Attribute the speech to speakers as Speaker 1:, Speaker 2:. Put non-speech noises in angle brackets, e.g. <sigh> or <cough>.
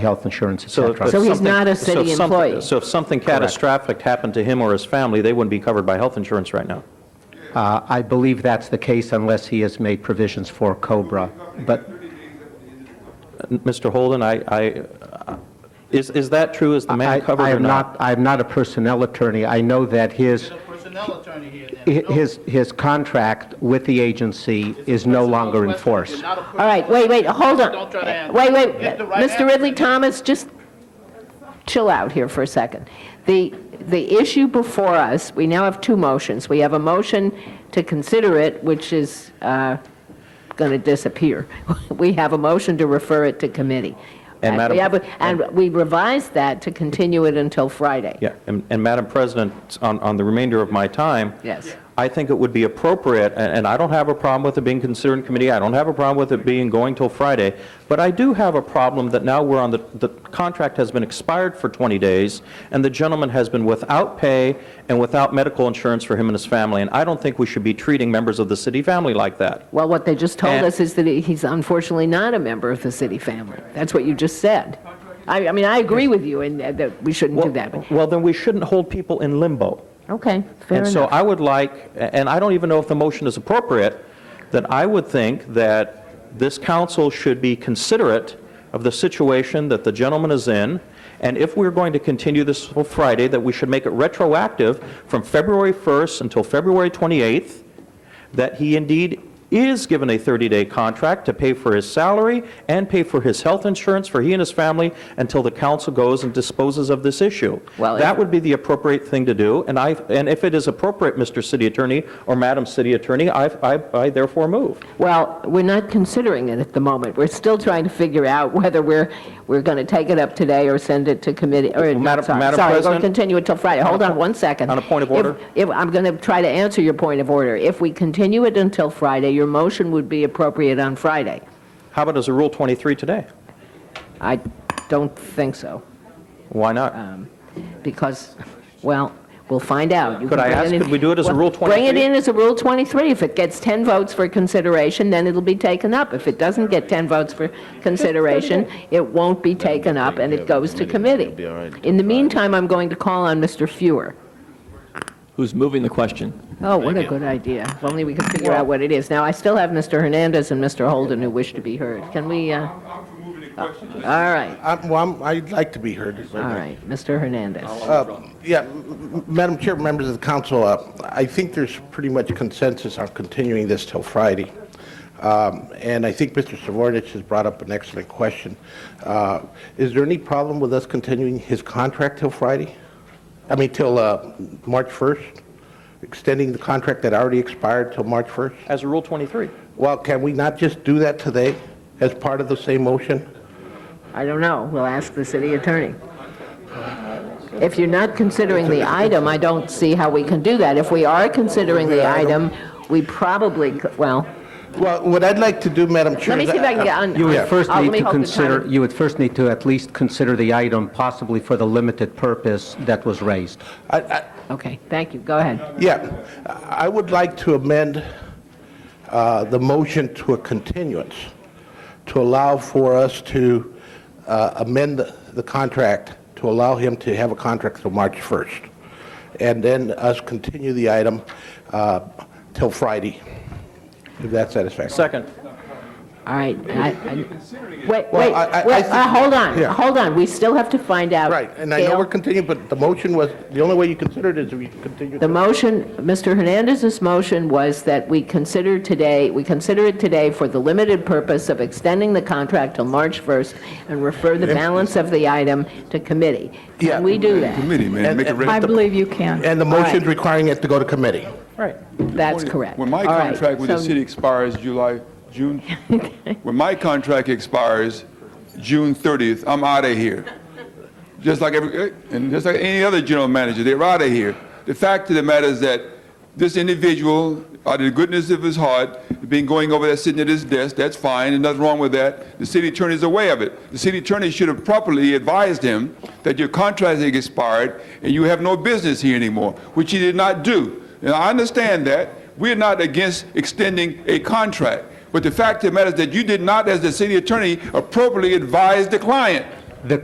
Speaker 1: health insurance, et
Speaker 2: So if
Speaker 1: cetera.
Speaker 2: something-
Speaker 3: he's not a city
Speaker 2: so if something-
Speaker 3: employee.
Speaker 2: So if something catastrophic happened to him or his family, they wouldn't be covered by health insurance right now?
Speaker 1: Uh, I believe that's the case unless he has made provisions for COBRA, but
Speaker 2: Mr. Holden, I, I, uh, is, is that true? Is the
Speaker 1: I-
Speaker 2: man covered
Speaker 1: I
Speaker 2: or
Speaker 1: am
Speaker 2: not?
Speaker 1: not, I am not a personnel attorney. I know that his,
Speaker 4: He's a personnel attorney here then.
Speaker 1: hi-
Speaker 4: No,
Speaker 1: his, his contract with the agency is no longer in
Speaker 4: It's a personal
Speaker 1: force.
Speaker 4: question. You're not a person-
Speaker 3: All right, wait, wait, hold on.
Speaker 4: Don't try to answer.
Speaker 3: Wait, wait,
Speaker 4: Get the right
Speaker 3: Mr.
Speaker 4: answer.
Speaker 3: Ridley Thomas, just chill out here for a second. The, the issue before us, we now have two motions. We have a motion to consider it, which is going to disappear. <laughs> We have a motion to refer it to committee.
Speaker 2: And Madam-
Speaker 3: We have a- And we revised that to continue it until Friday.
Speaker 2: Yeah, and, and Madam President, on, on the remainder of my time.
Speaker 3: Yes.
Speaker 2: I think it would be appropriate, and, and I don't have a problem with it being considered in committee, I don't have a problem with it being going till Friday, but I do have a problem that now we're on the, the contract has been expired for 20 days, and the gentleman has been without pay and without medical insurance for him and his family, and I don't think we should be treating members of the city family like that.
Speaker 3: Well, what they just told
Speaker 2: And-
Speaker 3: us is that he- he's unfortunately not a member of the city family. That's what you just said. I, I mean, I agree with you in that, that we shouldn't do that. but-
Speaker 2: Well, then we shouldn't hold people in limbo.
Speaker 3: Okay, fair
Speaker 2: And so
Speaker 3: enough.
Speaker 2: I would like, and I don't even know if the motion is appropriate, that I would think that this council should be considerate of the situation that the gentleman is in, and if we're going to continue this till Friday, that we should make it retroactive from February 1st until February 28th, that he indeed is given a 30-day contract to pay for his salary and pay for his health insurance for he and his family until the council goes and disposes of this issue.
Speaker 3: Well,
Speaker 2: That
Speaker 3: if-
Speaker 2: would be the appropriate thing to do, and I, and if it is appropriate, Mr. City Attorney or Madam City Attorney, I, I I therefore move.
Speaker 3: Well, we're not considering it at the moment. We're still trying to figure out whether we're, we're going to take it up today or send it to committee, or, no,
Speaker 2: Madam-
Speaker 3: sorry,
Speaker 2: Madam
Speaker 3: sorry, we're going
Speaker 2: President?
Speaker 3: to continue it till Friday. Hold on one second.
Speaker 2: on a point of
Speaker 3: If-
Speaker 2: order?
Speaker 3: If, I'm going to try to answer your point of order. If we continue it until Friday, your motion would be appropriate on Friday.
Speaker 2: How about as a Rule 23 today?
Speaker 3: I don't think so.
Speaker 2: Why not?
Speaker 3: because, well, we'll find out. You
Speaker 2: Could
Speaker 3: can
Speaker 2: I
Speaker 3: bring
Speaker 2: ask,
Speaker 3: in-
Speaker 2: could we do it as a
Speaker 3: Well,
Speaker 2: Rule
Speaker 3: Bring it
Speaker 2: 23?
Speaker 3: in as a Rule 23. If it gets 10 votes for consideration, then it'll be taken up. If it doesn't get 10 votes for consideration, it won't be taken up, and it goes to committee.
Speaker 5: be all right.
Speaker 3: In the meantime, I'm going to call on Mr. Fuhr.
Speaker 6: Who's moving the question?
Speaker 3: Oh, what a good idea. If only we could figure out what it is. Now, I still have Mr. Hernandez and Mr. Holden who wish to be heard. Can we, uh,
Speaker 7: I'm for moving the question.
Speaker 3: all right,
Speaker 5: I'm- Well, I'm- I'd like to be heard. Uh,
Speaker 3: all right, Mr. Hernandez.
Speaker 5: Yeah, m- m- Madam Chair, members of the council, uh, I think there's pretty much consensus on continuing this till Friday. Um, And I think Mr. Savornich has brought up an excellent question. Uh, Is there any problem with us continuing his contract till Friday? I mean, till uh, March 1st? Extending the contract that already expired till March 1st?
Speaker 2: As a Rule 23?
Speaker 5: Well, can we not just do that today as part of the same motion?
Speaker 3: I don't know, we'll ask the city attorney. If you're not considering the item, I don't see how we can do that. If we are considering the item, we probably, c- well,
Speaker 5: Well, what I'd like to do, Madam Chair...
Speaker 3: let me
Speaker 5: is
Speaker 3: see if I can get on.
Speaker 1: You
Speaker 3: on-
Speaker 1: would first
Speaker 3: oh, let
Speaker 1: need
Speaker 3: me
Speaker 1: to
Speaker 3: hold the
Speaker 1: consider,
Speaker 3: time.
Speaker 1: you would first need to at least consider the item possibly for the limited purpose that was raised.
Speaker 5: I- I-
Speaker 3: Okay, thank you, go ahead.
Speaker 5: Yeah, I would like to amend uh, the motion to a continuance, to allow for us to uh, amend the the contract, to allow him to have a contract till March 1st, and then us continue the item uh, till Friday, if that's satisfactory.
Speaker 2: Second.
Speaker 3: All right, I, I, wait, wait,
Speaker 5: Well, I- I- I
Speaker 3: wait,
Speaker 5: think-
Speaker 3: uh, hold on,
Speaker 5: Yeah.
Speaker 3: hold on, we still have to find out.
Speaker 5: Right, and I know we're
Speaker 3: Gail,
Speaker 5: continuing, but the motion was, the only way you consider it is if you continue.
Speaker 3: The motion, Mr. Hernandez's motion was that we consider today, we consider it today for the limited purpose of extending the contract till March 1st and refer the balance of the item to committee.
Speaker 5: Yeah.
Speaker 3: Can we do that?
Speaker 7: Committee, man,
Speaker 5: And-
Speaker 7: make it
Speaker 5: and-
Speaker 7: ready.
Speaker 8: I believe you can.
Speaker 5: And the
Speaker 3: All right.
Speaker 5: motion's requiring it to go to committee.
Speaker 2: Right.
Speaker 3: That's correct.
Speaker 7: When my
Speaker 3: All right,
Speaker 7: contract with the
Speaker 3: so-
Speaker 7: city expires July, June,
Speaker 3: <laughs>
Speaker 7: when my contract expires June 30th, I'm out of here. Just like every, eh, and just like any other general manager, they're out of here. The fact of the matter is that this individual, out of the goodness of his heart, been going over there, sitting at his desk, that's fine, and nothing wrong with that. The city attorney's aware of it. The city attorney should have properly advised him that your contract has expired and you have no business here anymore, which he did not do. Now, I understand that. We're not against extending a contract, but the fact of the matter is that you did not, as the city attorney, appropriately advise the client.